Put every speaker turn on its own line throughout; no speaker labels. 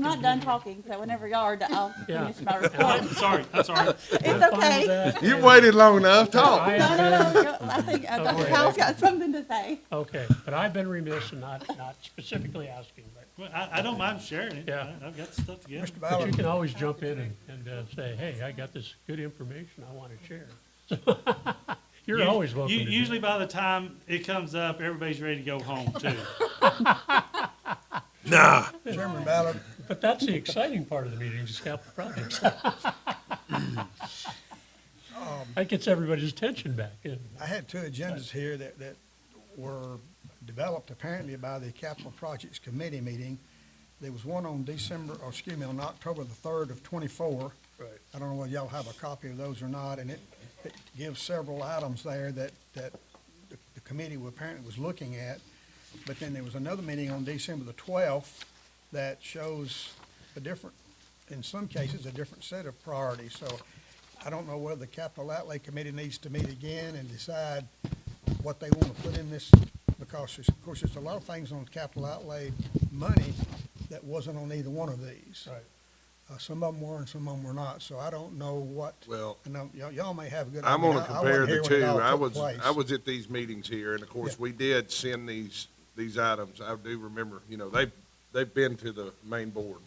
not done talking, so whenever y'all are done, I'll
Yeah.
finish my
And
report.
I'm sorry, I'm sorry.
It's okay.
You waited long enough, talk.
I
No,
have
no,
been-
no, go- I think uh, Dr. Powell's got something to say.
Okay, but I've been remiss in not, not specifically asking, but,
Well, I, I don't mind sharing it.
Yeah.
I- I've got stuff to give.
but you can always jump in and, and uh, say, hey, I got this good information I want to share. You're
Us-
always welcome
u-
to do
Usually by the time it comes up, everybody's ready to go home too.
Chairman Ballard,
that. But that's the exciting part of the meeting, is capital projects. That gets everybody's attention back in.
I had two agendas here that, that were developed apparently by the Capital Projects Committee meeting. There was one on December, or excuse me, on October the third of twenty-four. Right. I don't know whether y'all have a copy of those or not, and it, it gives several items there that, that the the committee were- apparently was looking at. But then there was another meeting on December the twelfth that shows a different, in some cases, a different set of priorities. So I don't know whether the capital outlay committee needs to meet again and decide what they want to put in this, because there's, of course, there's a lot of things on capital outlay money that wasn't on either one of these. Right. Uh, some of them were and some of them were not, so I don't know what,
Well-
and I'm- y'all, y'all may have a good. I
I'm
mean,
gonna
I- I wasn't
compare the
here when it
two.
all
I
took
was,
place.
I was at these meetings here, and of course,
Yeah.
we did send these, these items. I do remember, you know, they've, they've been to the main board.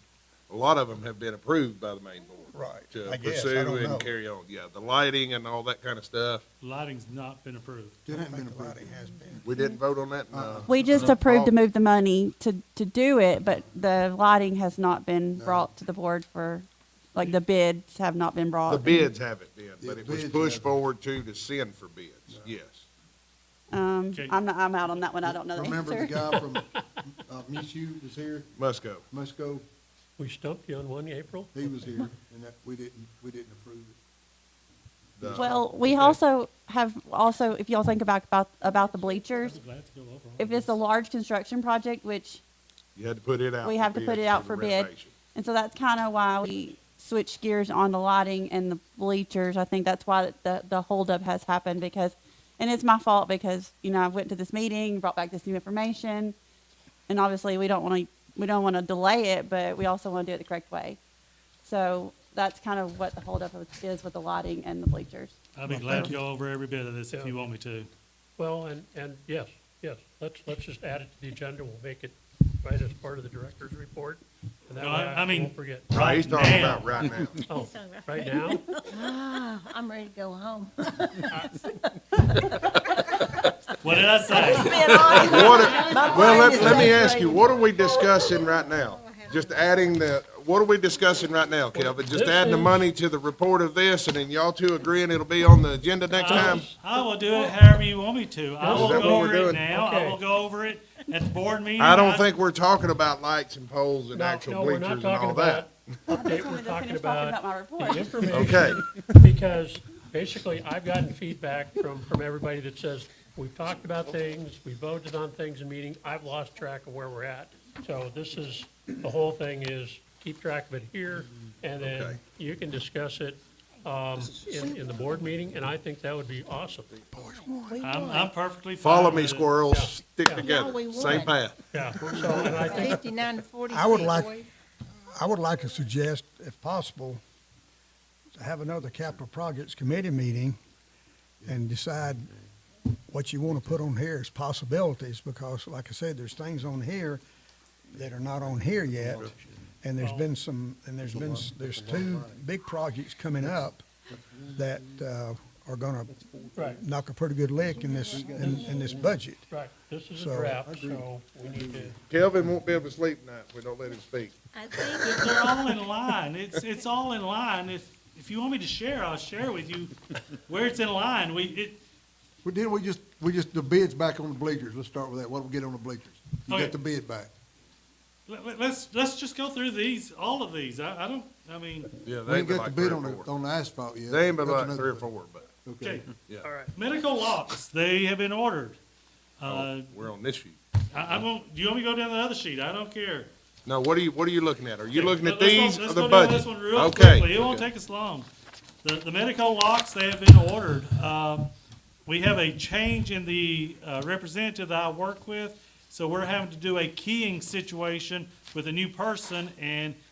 A lot of them have been approved by the main board.
Right,
To
I guess, I
uh, pursue
don't know.
and carry on, yeah, the lighting and all that kind of stuff.
Lighting's not been approved.
I think the lighting has been.
We didn't vote on that, no.
We just approved to move the money to, to do it, but the lighting has not been brought to the board for, like, the bids have not been brought.
Uh,
The bids haven't been, but
The
it was
bids
pushed
haven't.
forward to, to send for bids, yes.
Um,
Okay.
I'm not, I'm out on that one. I don't know the
Remember the
answer.
guy from, uh, Mizzou was here,
Must go.
Musco,
We stumped you on one April?
he was here, and that, we didn't, we didn't approve it.
The-
Well, we also have, also, if y'all think about, about, about the bleachers,
I'm glad to go over. all
if it's a
this.
large construction project, which,
You had to put it out.
We
for
have to put
bids
it out
the
for bid.
renovation.
and so that's kind of why we switched gears on the lighting and the bleachers. I think that's why the, the holdup has happened because, and it's my fault because, you know, I went to this meeting, brought back this new information. And obviously we don't want to, we don't want to delay it, but we also want to do it the correct way. So that's kind of what the holdup is with the lighting and the bleachers.
I'll be glad to go over every bit of this if you want me to.
Well, and, and yes, yes, let's, let's just add it to the agenda, we'll make it right as part of the director's report. And that
No,
way
I- I
I
mean-
won't forget.
No, He's
Right
talking
now.
about right now.
Oh, right now?
I'm ready to go home.
What did I say?
What are- well, let, let me ask you, what are we discussing right now? Just adding the, what are we discussing right now, Kelvin? Just
This
adding the
is-
money to the report of this, and then y'all two agreeing it'll be on the agenda
Uh,
next time?
I will do it however you want me to. I
Is
will
that what
go
we're
over it
doing?
now. I
Okay.
will go over it at the board meeting.
I don't think we're talking about lights and poles and
No, no,
actual
we're
bleachers
not
and
talking
all that.
about, update, we're talking about
my
the
report.
information,
Okay,
because basically, I've gotten feedback from, from everybody that says, we've talked about things, we voted on things in meeting, I've lost track of where we're at. So this is, the whole thing is, keep track of it here, and
Okay.
then you can discuss it, um, in, in the board meeting, and I think that would be awesome.
I'm, I'm perfectly fine.
follow
with
me
it.
squirrels, stick
Yeah.
together,
No, we
same
would.
path.
Yeah, so, and I think,
Fifty-nine to forty-six.
I would like- I would like to suggest, if possible, to have another capital projects committee meeting and decide what you want to put on here as possibilities, because like I said, there's things on here that are not on here yet. And there's been some, and there's been, s- there's two big projects coming up that, uh, are gonna
right,
knock a pretty good lick in this, in, in this budget.
right, this is a
So-
draft, so we need to.
Kelvin won't be able to sleep tonight if we don't let him speak.
I think,
They're all in line. It's, it's all in line. If, if you want me to share, I'll share with you where it's in line. We, it,
Well, didn't we just, we just, the bid's back on the bleachers, let's start with that, what do we get on the bleachers? You
Oh,
Okay.
got the bid back.
Let, let- let's let's just go through these, all of these. I, I don't. I mean,
Yeah,
We
they ain't
ain't got
been
the
like three
bid
or
on the,
four.
on the asphalt yet.
They ain't been
That's
like
another
three or
bid.
four, but
okay.
Okay,
Yeah.
All right.
Medical locks. They have been ordered. Uh,
we're on this sheet.
I, I won't. Do you want me to go down the other sheet? I don't care.
No, what are you, what are you looking at? Are you looking at
Let's go-
these or
let's
the
go down
budget?
This one real
Okay,
quickly. It won't
okay.
take us long. The, the medical locks, they have been ordered. Um, we have a change in the uh, representative that I work with, so we're having to do a keying situation with a new person, and